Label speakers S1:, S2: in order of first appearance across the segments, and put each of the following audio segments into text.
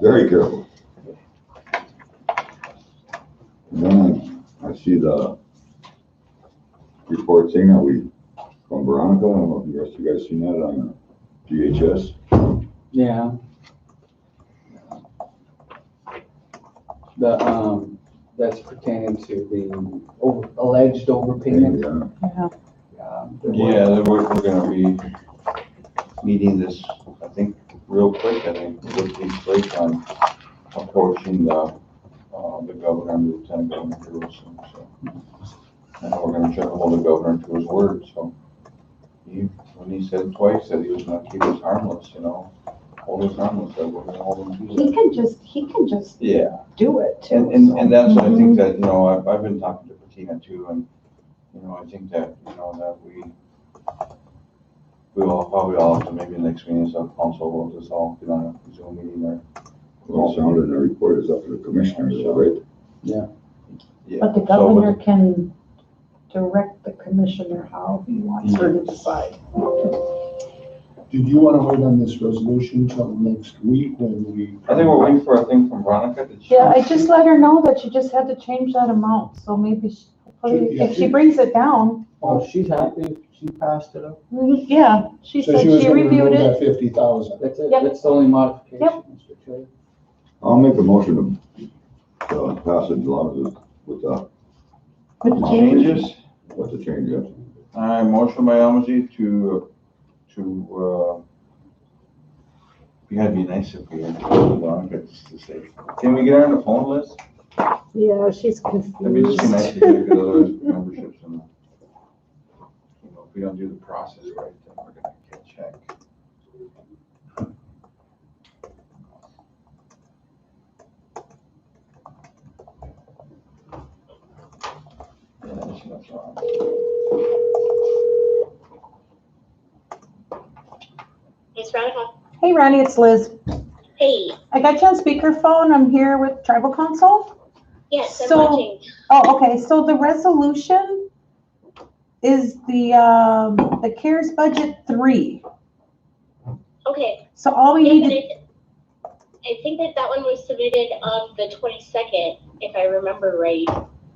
S1: very careful. And Then I see the report thing that we, from Veronica, I don't know if you guys, you guys seen that on GHS?
S2: Yeah. The, um, that's pertaining to the over- alleged overpayment.
S1: Yeah.
S2: um, there were-
S3: Yeah, then we're, we're gonna be meeting this, I think, real quick, I think, with these late on approaching the, uh, the governor and lieutenant governor Jerusalem, so. And we're gonna try to hold the governor to his word, so. He, when he said twice that he was gonna keep us harmless, you know, hold us harmless, that we're gonna hold him to
S4: He
S3: that.
S4: can just, he can just
S3: Yeah,
S4: do it too.
S3: and, and, and that's, what I think that, you know, I've, I've been talking to Bettina too, and, you know, I think that, you know, that we, we will probably all have to, maybe next meeting, so council will just all get on a Zoom meeting or.
S1: Well, it sounded, in the report is up to the commissioners, right?
S3: yeah,
S4: But the
S3: so,
S4: governor can direct the commissioner how he wants her to decide.
S5: Did you want to wait on this resolution till next week when we?
S3: I think we're waiting for a thing from Veronica, did she?
S6: Yeah, I just let her know that you just had to change that amount, so maybe, she- hopefully, if she brings it down,
S2: Oh, she's happy, she passed it up.
S6: mm, yeah, she
S5: So
S6: said
S5: she was
S6: she
S5: going to remove
S6: reviewed it.
S5: that fifty thousand.
S2: That's it,
S6: Yep.
S2: that's the only modification,
S6: Yep.
S2: Mr. Chair.
S1: I'll make a motion to uh, pass it along with, with the,
S6: With the change.
S3: Changes,
S1: with the change, yeah.
S3: I motion by Almazy to, to, uh, you gotta be nice if we, had Veronica, just to say, can we get her on the phone list?
S7: Yeah, she's
S3: That'd be just nice to
S7: confused.
S3: get other memberships and, you know, if we don't do the process right, then we're gonna get checked. Yeah, that's what's wrong.
S8: Miss Veronica.
S6: Hey Ronnie, it's Liz.
S8: Hey,
S6: I got you on speakerphone, I'm here with tribal council.
S8: yes, I'm
S6: So-
S8: watching.
S6: Oh, okay, so the resolution is the, um, the CARES budget three.
S8: Okay.
S6: So all we
S8: yes,
S6: need,
S8: and
S6: to
S8: I I think that that one was submitted on the twenty-second, if I remember right.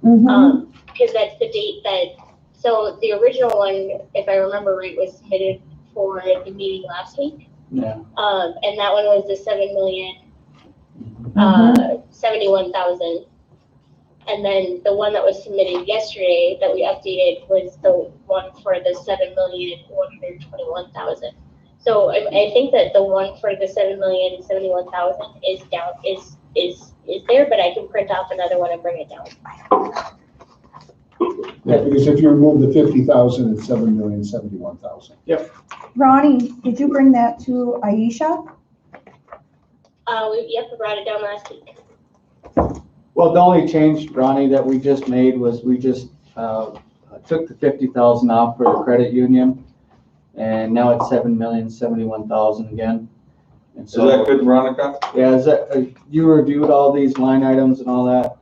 S6: Mhm.
S8: Um, because that's the date that, so the original one, if I remember right, was submitted for the meeting last week.
S2: Yeah.
S8: Um, and that one was the seven million, uh, seventy-one thousand. And then the one that was submitted yesterday that we updated was the one for the seven million, one hundred twenty-one thousand. So I, I think that the one for the seven million, seventy-one thousand is down, is, is, is there, but I can print off another one and bring it down.
S5: Yeah, because if you remove the fifty thousand, it's seven million seventy-one thousand.
S6: Ronnie, did you bring that to Aisha?
S8: Uh, we, yep, we brought it down last week.
S2: Well, the only change, Ronnie, that we just made was we just, uh, took the fifty thousand off for the credit union. And now it's seven million, seventy-one thousand again. And
S3: Is that
S2: so,
S3: good, Veronica?
S2: yeah, is that, uh, you reviewed all these line items and all that?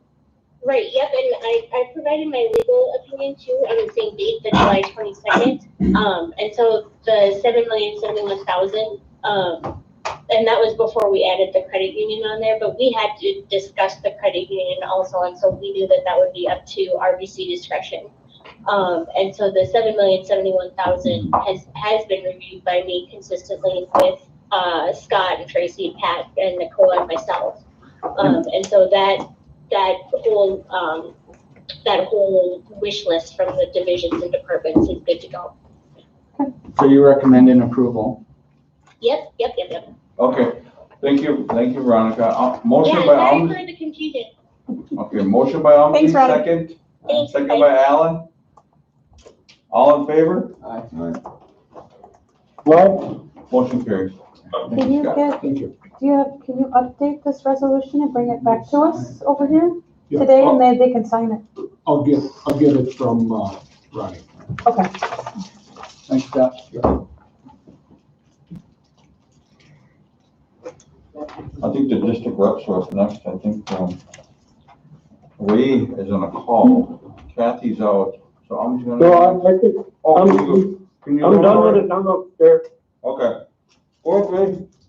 S8: Right, yep, and I, I provided my legal opinion too on the same date, the July twenty-second. Um, and so the seven million seventy-one thousand, um, and that was before we added the credit union on there, but we had to discuss the credit union also, and so we knew that that would be up to RBC discretion. Um, and so the seven million seventy-one thousand has, has been reviewed by me consistently with, uh, Scott and Tracy, Pat, and Nicole and myself. Um, and so that that whole, um, that whole wish list from the divisions and departments is good to go.
S2: So you recommend an approval?
S8: Yep, yep, yep, yep.
S3: Okay, thank you, thank you, Veronica. Uh,
S8: Yeah,
S3: Motion by
S8: sorry
S3: Almazy,
S8: for the confusion.
S3: okay, motion by Almazy,
S6: Thanks, Veronica.
S3: second.
S8: Thanks,
S3: Second
S8: bye.
S3: by Allen. All in favor?
S2: Aye.
S5: Well,
S3: Motion carries. Thank
S6: Can you
S3: Scott.
S6: get,
S5: thank you.
S6: do you have, can you update this resolution and bring it back to us over here
S5: Yeah. Oh.
S6: today and then they can sign it?
S5: I'll get, I'll get it from, uh, Ronnie.
S6: Okay.
S2: Thanks, Scott.
S3: I think the district reps are up next, I think, um, Ray is on a call, Kathy's out, so I'm just gonna.
S9: No, I, I think,
S3: Oh,
S9: I'm-
S3: can you go- can you
S9: I'm
S3: go
S9: done
S3: for
S9: with it, I'm up there.
S3: Okay. Go ahead, Ray.